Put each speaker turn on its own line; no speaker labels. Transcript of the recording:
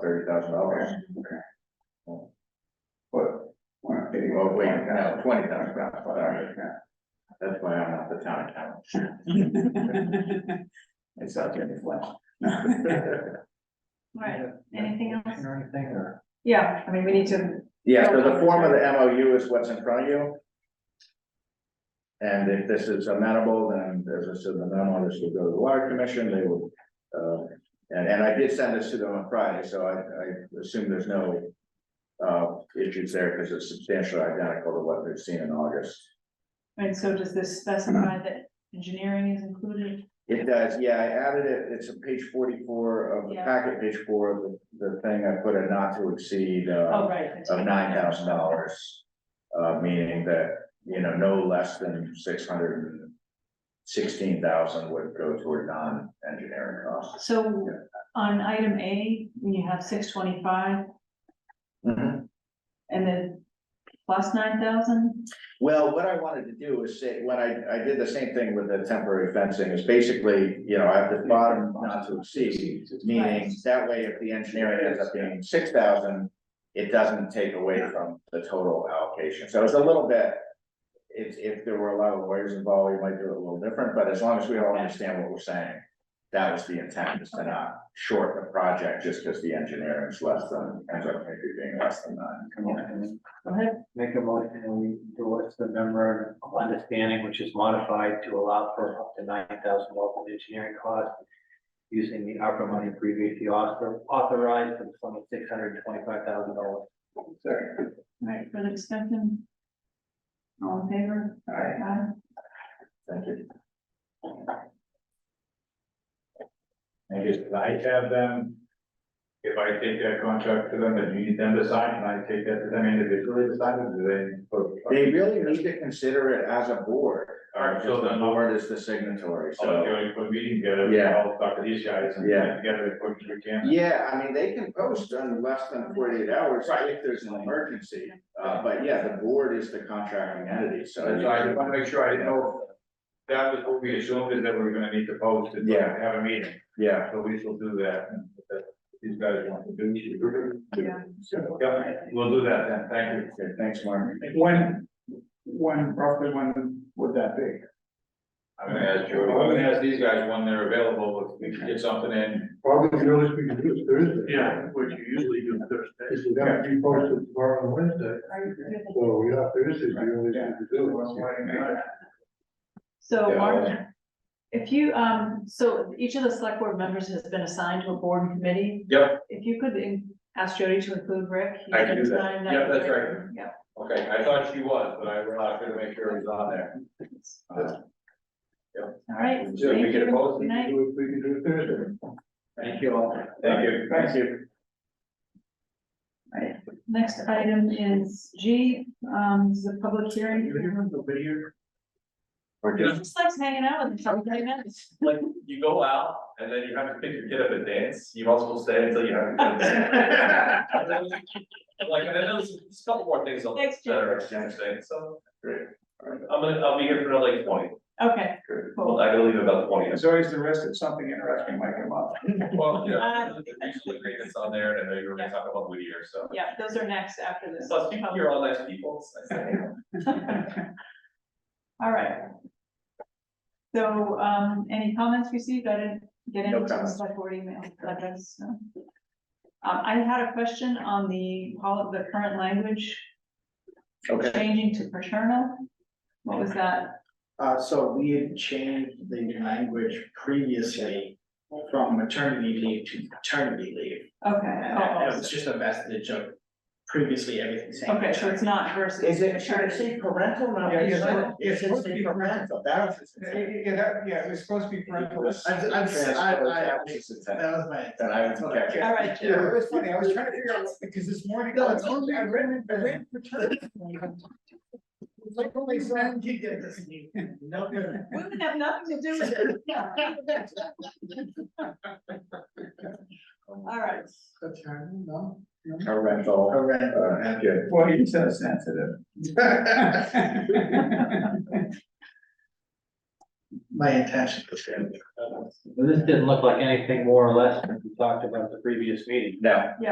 thirty thousand dollars.
But. Well,
Well, wait,
yeah.
no, twenty thousand dollars, sorry,
Yeah.
that's why I'm not the town accountant.
It's out there in the flesh.
Right, anything else?
Or anything, or?
Yeah, I mean, we need to,
Yeah, so the form of the MOU is what's in front of you. And if this is amenable, then as I said, the memo, this will go to the water commission, they will. Uh, and, and I did send this to them on Friday, so I, I assume there's no. Uh, issues there because it's substantially identical to what they've seen in August.
and so does this specify that engineering is included?
It does, yeah, I added it, it's on page forty-four of the
Yeah.
packet, page four of the, the thing, I put a not to exceed, uh,
Oh, right.
of nine thousand dollars. Uh, meaning that, you know, no less than six hundred and sixteen thousand would go toward non-engineering costs.
So on item A, when you have six twenty-five and then plus nine thousand,
Well, what I wanted to do is say, when I, I did the same thing with the temporary fencing, is basically, you know, I have the bottom not to exceed. Meaning, that way, if the engineering ends up being six thousand, it doesn't take away from the total allocation, so it's a little bit. If, if there were a lot of lawyers involved, we might do it a little different, but as long as we all understand what we're saying. That was the intent, is to not short the project just because the engineering is less than, ends up maybe being less than nine.
Come on.
go ahead.
Make a motion, and we endorse the memorandum of understanding, which is modified to allow for up to nine thousand dollars in engineering costs. Using the ARPA money previously author- authorized for the sum of six hundred and twenty-five thousand dollars.
Sorry.
Right, further discussion? All in favor?
Alright.
Aye.
Thank you.
I guess I have them, if I take that contract to them, then you need them to sign, and I take that to them individually to sign, or do they?
They really need to consider it as a board,
All
or
right, so
the
then-
board is the signatory,
I'll let
so.
you put a meeting together,
Yeah.
I'll talk to these guys and
Yeah.
get together as quick as we can.
Yeah, I mean, they can post in less than forty-eight hours
Right.
if there's an emergency, uh, but yeah, the board is the contracting entity, so.
So I just wanna make sure, I didn't know, if that was what we assumed is that we were gonna need to post and
Yeah.
have a meeting,
Yeah,
so we shall do that. and if that's what These guys want to do.
Yeah.
Yeah, we'll do that then, thank you.
okay, thanks, Mark.
When, when, roughly when would that be?
I'm gonna ask Jody, I'm gonna ask these guys when they're available, if we can get something in.
Probably the earliest we can do is Thursday.
Yeah,
which you usually do Thursday. It's gonna be posted tomorrow and Wednesday, so yeah, Thursday's the earliest we can do it.
So
Yeah.
Mark, if you, um, so each of the select board members has been assigned to a board and committee.
Yep.
If you could in- ask Jody to include Rick. he
I can do that.
sign
Yep, that's
with
right.
Rick. Yep.
Okay, I thought she was, but I, I couldn't make sure it was on there. Uh,
All right.
Sure, we
thank
get a
you.
vote.
Good
We
night.
can do it- We can do it Thursday.
Thank you all. Thank you.
Thank you.
Right. Next item is G, um, this is a public hearing.
We're
He
good.
just likes hanging out with us for ten minutes.
like you go out and then you have to pick your kid up and dance, you might as well stay until you have. your kids. And then, Like, and then there's there's a couple more things on
Thanks,
that
Jim.
are interesting, so
Great.
I'm gonna, I'll be here for another like twenty,
Okay,
Good.
cool.
I gotta leave about twenty.
There's always the risk that something interesting might come up.
Well, you
I
know,
don't think
there's usually agreements on there and I know you were gonna talk about Whittier, so.
Yeah, those are next after this.
So speaking here, all nice people, it's nice to hang out.
All right. So, um, any comments received? I didn't get
No
into the
comments.
select board email address. no. Um, uh, I had a question on the, pol- the current language
Okay.
changing to paternal. What was that?
Uh, so we had changed the language previously from maternity leave to paternity leave.
Okay,
And that that
oh,
was just a vestige of previously everything
oh,
saying.
okay, so it's not versus.
Is it, should it
paternity.
say parental, not
Yeah, it's-
paternal?
it's
It should
supposed to
say
be
parental, that was.
It- it- it had- yeah, it was supposed to be parental.
I'm, I'm, I, I,
That was the
that
intent.
was my.
That I would catch it.
All right,
Yeah, it was funny, I was trying to figure out, because this morning.
No, it's only-
I read, I read paternity. It's like only seven
You did this. No, no.
Women have nothing to do with it. All right.
Paternal, no.
Parental,
Parental.
uh, and good.
Boy, you're so sensitive.
My intention was to.
This didn't look like anything more or less than we talked about at the previous meeting.
No.